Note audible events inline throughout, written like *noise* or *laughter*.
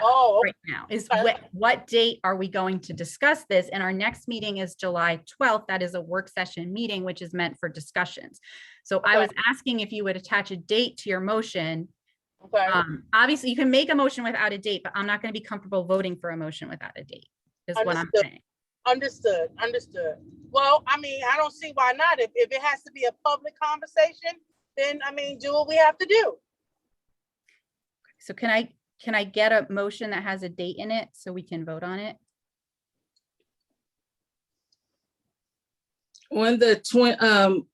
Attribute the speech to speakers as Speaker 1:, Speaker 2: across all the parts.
Speaker 1: Oh,
Speaker 2: right now is
Speaker 1: Okay.
Speaker 2: what, what date are we going to discuss this? And our next meeting is July 12th. That is a work session meeting, which is meant for discussions. So I was asking if you would attach a date to your motion.
Speaker 1: okay.
Speaker 2: Um, Obviously, you can make a motion without a date, but I'm not going to be comfortable voting for a motion without a date is what I'm
Speaker 1: Understood.
Speaker 2: saying.
Speaker 1: Understood, understood. Well, I mean, I don't see why not. If, if it has to be a public conversation, then I mean, do what we have to do.
Speaker 2: So can I, can I get a motion that has a date in it so we can vote on it?
Speaker 3: On the twen- um,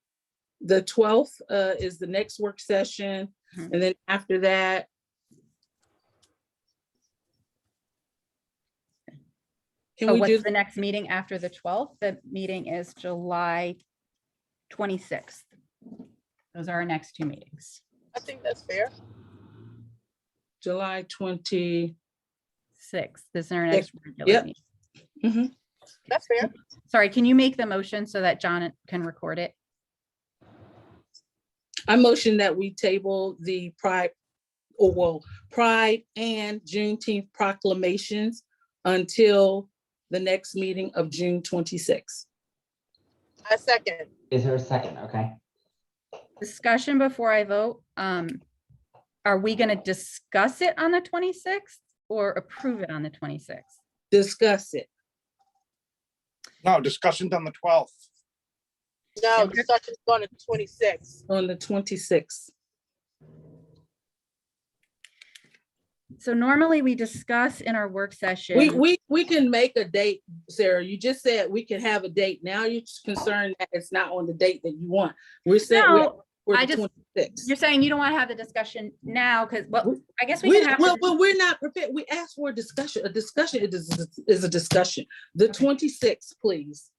Speaker 3: the twelfth, uh, is the next work session,
Speaker 2: Mhm.
Speaker 3: and then after that.
Speaker 2: Oh,
Speaker 3: Can we do,
Speaker 2: what's the next meeting after the 12th? The meeting is July 26th. Those are our next two meetings.
Speaker 1: I think that's fair.
Speaker 3: July twenty,
Speaker 2: Six, this is our
Speaker 3: Yep.
Speaker 2: next regular
Speaker 3: Yep.
Speaker 2: meeting.
Speaker 1: That's fair.
Speaker 2: Sorry, can you make the motion so that John can record it?
Speaker 3: I motion that we table the pride, or well, pride and Juneteenth proclamations until the next meeting of June twenty-sixth.
Speaker 1: I second.
Speaker 4: Is there a second? Okay.
Speaker 2: Discussion before I vote. Um, are we going to discuss it on the 26th or approve it on the 26th?
Speaker 3: Discuss it.
Speaker 5: No, discussions on the twelfth.
Speaker 1: No,
Speaker 2: Okay.
Speaker 1: discussion's going to twenty-six.
Speaker 3: on the twenty-sixth.
Speaker 2: So normally we discuss in our work session.
Speaker 3: We, we, we can make a date, Sarah. You just said we can have a date. Now you're just concerned that it's not on the date that you want. We're saying we're-
Speaker 2: No, I
Speaker 3: we're the
Speaker 2: just-
Speaker 3: twenty-sixth.
Speaker 2: you're saying you don't want to have the discussion now because, well, I guess we
Speaker 3: We,
Speaker 2: can have.
Speaker 3: well,
Speaker 2: the-
Speaker 3: well, we're not prepared. We asked for a discussion. A discussion is, is- is a discussion. The
Speaker 2: Okay.
Speaker 3: twenty-sixth, please.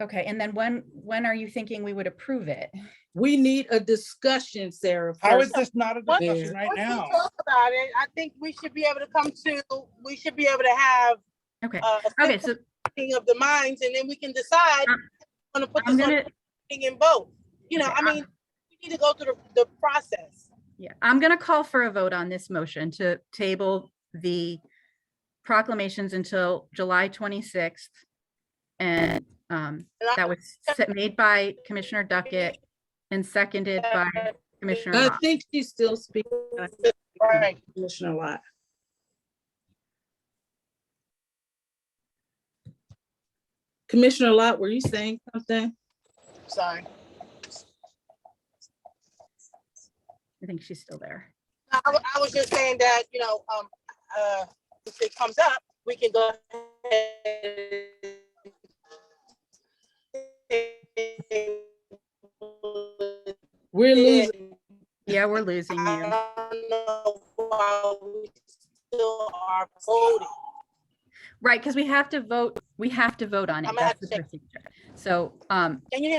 Speaker 2: Okay, and then when, when are you thinking we would approve it?
Speaker 3: Uh, We need a discussion, Sarah.
Speaker 5: How is
Speaker 3: first.
Speaker 5: this not a
Speaker 1: What-
Speaker 5: discussion right
Speaker 1: Once we
Speaker 5: now?
Speaker 1: Talk about it. I think we should be able to come to, we should be able to have
Speaker 2: Okay,
Speaker 1: uh, a
Speaker 2: okay,
Speaker 1: symphony
Speaker 2: so
Speaker 1: of the minds and then we can decide.
Speaker 2: I'm-
Speaker 1: Want to put
Speaker 2: I'm
Speaker 1: this on
Speaker 2: gonna,
Speaker 1: thing and vote. You know,
Speaker 2: Okay, uh,
Speaker 1: I
Speaker 2: I'm-
Speaker 1: mean, we need to go through the, the process.
Speaker 2: yeah, I'm gonna call for a vote on this motion to table the proclamations until July twenty-sixth. And um,
Speaker 1: And I-
Speaker 2: that was se- made by Commissioner Duckett and seconded by Commissioner
Speaker 3: I
Speaker 2: Locke.
Speaker 3: think she's still speaking,
Speaker 1: Right.
Speaker 3: Commissioner Lott. Commissioner Lott, were you saying something?
Speaker 1: Sorry.
Speaker 2: I think she's still there.
Speaker 1: I, wa- I was just saying that, you know, um, uh, if it comes up, we can go ahead.
Speaker 3: We're losing.
Speaker 2: Yeah, we're losing you.
Speaker 1: I don't know why we still are voting.
Speaker 2: Right, because we have to vote, we have to vote on it.
Speaker 1: I'm gonna have
Speaker 2: That's
Speaker 1: to
Speaker 2: the procedure. So um,
Speaker 1: Can you?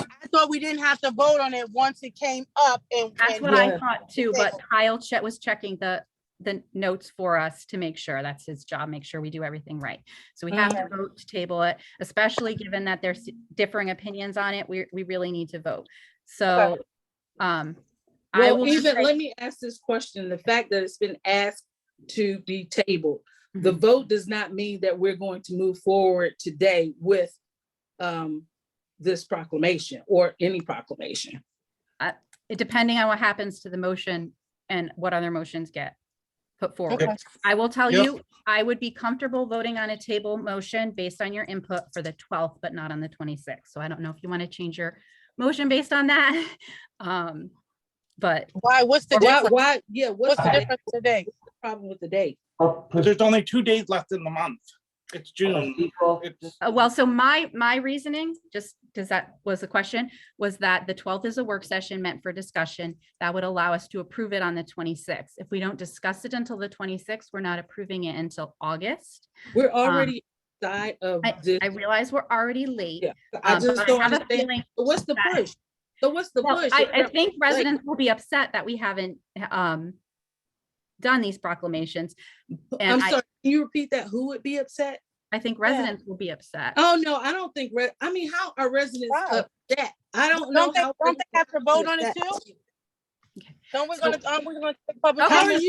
Speaker 1: I thought we didn't have to vote on it once it came up and.
Speaker 2: That's
Speaker 1: and-
Speaker 2: what I
Speaker 3: Yeah.
Speaker 2: thought too,
Speaker 1: Okay.
Speaker 2: but Kyle che- was checking the, the notes for us to make sure, that's his job, make sure we do everything right. So we have to vote to table it, especially given that there's differing opinions on it, we, we really need to vote. So, um, I
Speaker 3: Well,
Speaker 2: will, just
Speaker 3: even,
Speaker 2: say-
Speaker 3: let me ask this question, the fact that it's been asked to be tabled, the
Speaker 2: Mhm.
Speaker 3: vote does not mean that we're going to move forward today with um this proclamation or any proclamation.
Speaker 2: depending on what happens to the motion and what other motions get put forward.
Speaker 1: Okay.
Speaker 2: I will tell
Speaker 5: Yep.
Speaker 2: you, I would be comfortable voting on a table motion based on your input for the twelfth, but not on the twenty-sixth. So I don't know if you want to change your motion based on that. *laughs* Um, but
Speaker 1: Why, what's the
Speaker 3: Why,
Speaker 1: difference?
Speaker 3: why, yeah, what's
Speaker 1: What's the
Speaker 3: the
Speaker 1: difference today?
Speaker 3: problem with the date?
Speaker 4: Or
Speaker 5: But
Speaker 4: pres-
Speaker 5: There's only two days left in the month. It's June.
Speaker 4: procedural-
Speaker 5: It's,
Speaker 2: Uh, Well, so my, my reasoning, just because that was the question, was that the twelfth is a work session meant for discussion. That would allow us to approve it on the twenty-sixth. If we don't discuss it until the twenty-sixth, we're not approving it until August.
Speaker 3: We're already side of this.
Speaker 2: Um, I realize we're already late.
Speaker 3: Yeah, I
Speaker 2: um,
Speaker 3: just
Speaker 2: but
Speaker 3: don't
Speaker 2: have a
Speaker 3: understand.
Speaker 2: feeling
Speaker 3: So What's the
Speaker 2: that-
Speaker 3: push? So what's the
Speaker 2: Well,
Speaker 3: push?
Speaker 2: I,
Speaker 3: If
Speaker 2: I
Speaker 3: we're-
Speaker 2: think
Speaker 3: like-
Speaker 2: residents will be upset that we haven't um done these proclamations.
Speaker 3: I'm
Speaker 2: And I,
Speaker 3: sorry, can you repeat that? Who would be upset?
Speaker 2: I think residents will be upset.
Speaker 3: Oh, no, I don't think, re- I mean, how are residents
Speaker 1: Wow.
Speaker 3: upset? I don't know
Speaker 1: Don't they,
Speaker 3: how.
Speaker 1: don't they have to vote on it
Speaker 3: residents are upset.
Speaker 1: too? Don't we
Speaker 2: So-
Speaker 1: gonna, aren't we gonna take public
Speaker 2: Okay.
Speaker 3: How are
Speaker 1: comment?
Speaker 3: you